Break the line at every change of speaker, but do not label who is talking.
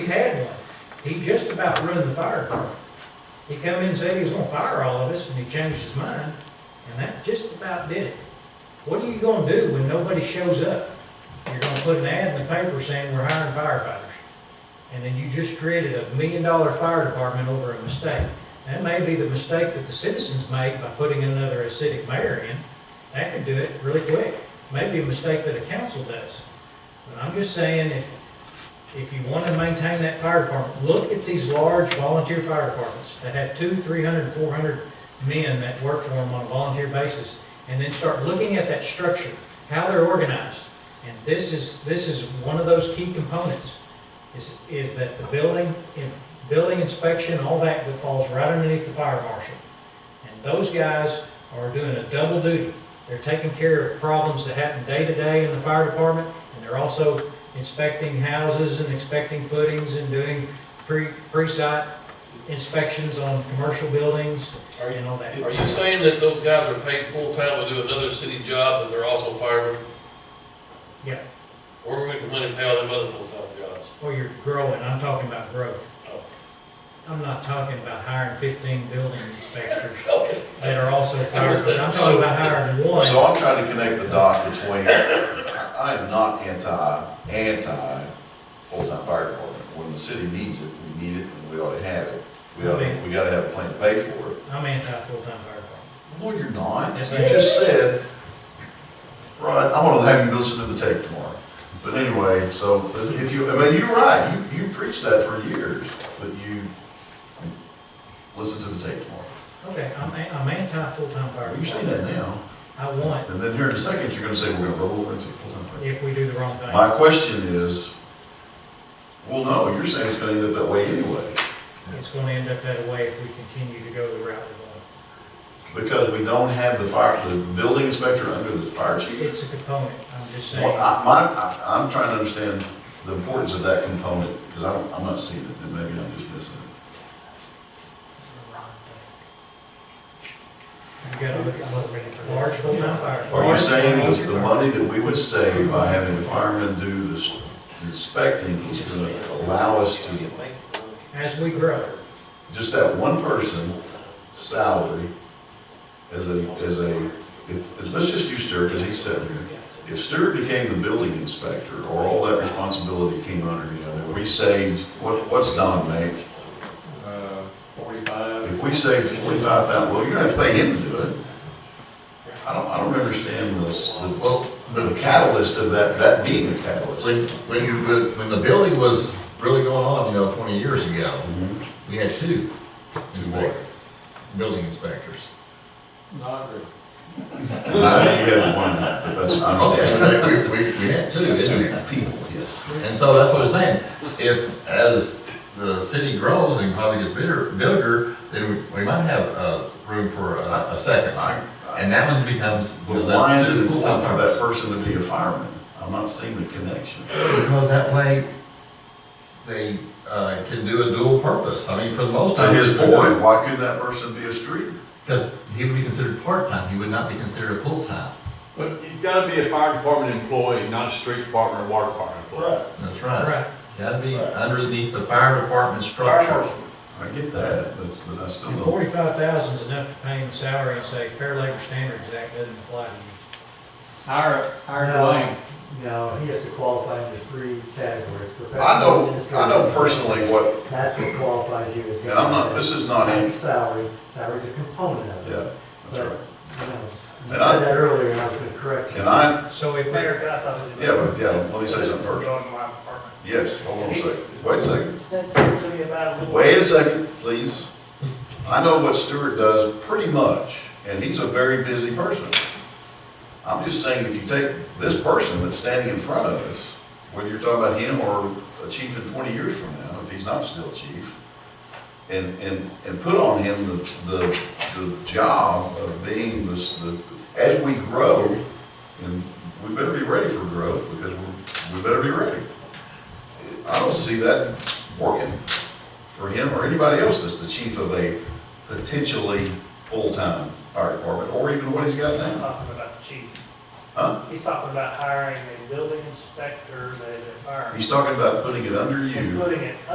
had one. He just about ruined the fire department. He come in and said he was gonna fire all of us, and he changed his mind, and that just about did it. What are you gonna do when nobody shows up? You're gonna put an ad in the paper saying we're hiring firefighters. And then you just created a million dollar fire department over a mistake. That may be the mistake that the citizens made by putting another acidic mayor in. That could do it really quick. Maybe a mistake that a council does. But I'm just saying, if, if you want to maintain that fire department, look at these large volunteer fire departments that have two, three hundred, four hundred men that work for them on a volunteer basis, and then start looking at that structure, how they're organized. And this is, this is one of those key components, is, is that the building, in- building inspection, all that, that falls right underneath the fire marshal. And those guys are doing a double duty. They're taking care of problems that happen day to day in the fire department, and they're also inspecting houses and inspecting footings and doing pre, pre-site inspections on commercial buildings
Are you,
and all that.
are you saying that those guys are paid full-time to do another city job, but they're also firemen?
Yeah,
Or we're gonna come in and pay all them other full-time jobs?
or you're growing, I'm talking about growth.
Oh.
I'm not talking about hiring fifteen building inspectors
Okay.
that are also firemen, I'm talking about hiring one.
So I'm trying to connect the dots between, I am not anti, anti full-time fire department. When the city needs it, we need it, and we ought to have it. We ought to, we gotta have a plan to pay for it.
I'm anti-full-time fire department.
No, you're not.
Yes,
You
I am.
just said, right, I'm gonna have you listen to the tape tomorrow. But anyway, so if you, I mean, you're right, you, you preached that for years, but you, listen to the tape tomorrow.
Okay, I'm, a- I'm anti-full-time fire
You say that
department.
now,
I want,
and then here in a second, you're gonna say, we're gonna roll over into full-time fire.
if we do the wrong thing.
My question is, well, no, you're saying it's gonna end up that way anyway,
It's gonna end up that way if we continue to go the route we're
because we don't have the fire, the building inspector under the fire
going.
chief.
It's a component, I'm just
Well,
saying.
I, my, I- I'm trying to understand the importance of that component, because I don't, I'm not seeing it, and maybe I'm just missing it.
You gotta look at what large full-time fire.
Are you saying that the money that we would save by having the firemen do this inspecting is gonna allow us to,
As we grow,
just that one person salary as a, as a, if- let's just use Stuart, because he's sitting here. If Stewart became the building inspector, or all that responsibility came under him, and we saved, what, what's Don make?
Uh, forty-five.
If we saved forty-five thousand, well, you're gonna have to pay him to do it. I don't, I don't understand this, the,
Well,
the catalyst of that, that being the catalyst.
when, when you, when the building was really going on, you know, twenty years ago,
Mhm.
we had two.
what?
Building inspectors.
Not agree.
I know you had one, but that's, I understand.
Okay, we, we, we had two, isn't it?
People, yes.
And so that's what I'm saying, if, as the city grows and probably gets bigger, bigger, then we, we might have, uh, room for a, a second.
I, I,
And that one becomes,
but why is
that's
it
two
important for
full-time
that person to be a fireman? I'm not seeing the connection.
Because that way, they, uh, can do a dual purpose, I mean, for the most
To
part.
his point, why couldn't that person be a street?
Because he would be considered part-time, he would not be considered a full-time.
But he's gotta be a fire department employee, not a street department or water department employee.
That's right.
right,
Gotta be underneath the fire department structure.
I get that, but, but I still
and
don't.
forty-five thousand is enough to pay him salary and say Fair Labor Standards Act doesn't apply to you.
Hire, hire
No.
Dwayne.
No, he has to qualify under three categories.
I know, I know
Professional,
personally what,
That's what qualifies you as.
and I'm not, this is not, in-
Salary, salary's a component of it.
yeah, that's right.
You know, you
And I-
said that earlier, and I was gonna correct you.
And I,
So if,
Mayor, can I thought it was.
yeah, but- yeah, let me say something first.
On my apartment.
Yes, hold on a second, wait a second,
Said something to me about a little.
wait a second, please. I know what Stuart does pretty much, and he's a very busy person. I'm just saying, if you take this person that's standing in front of us, whether you're talking about him or a chief in twenty years from now, if he's not still chief, and, and, and put on him the, the, the job of being this, the, as we grow, and we better be ready for growth, because we're, we better be ready. I don't see that working for him or anybody else that's the chief of a potentially full-time fire department, or even what he's got
He's
now,
Talking about the chief.
huh?
He's talking about hiring a building inspector that is a fire.
He's talking about putting it under you.
And putting it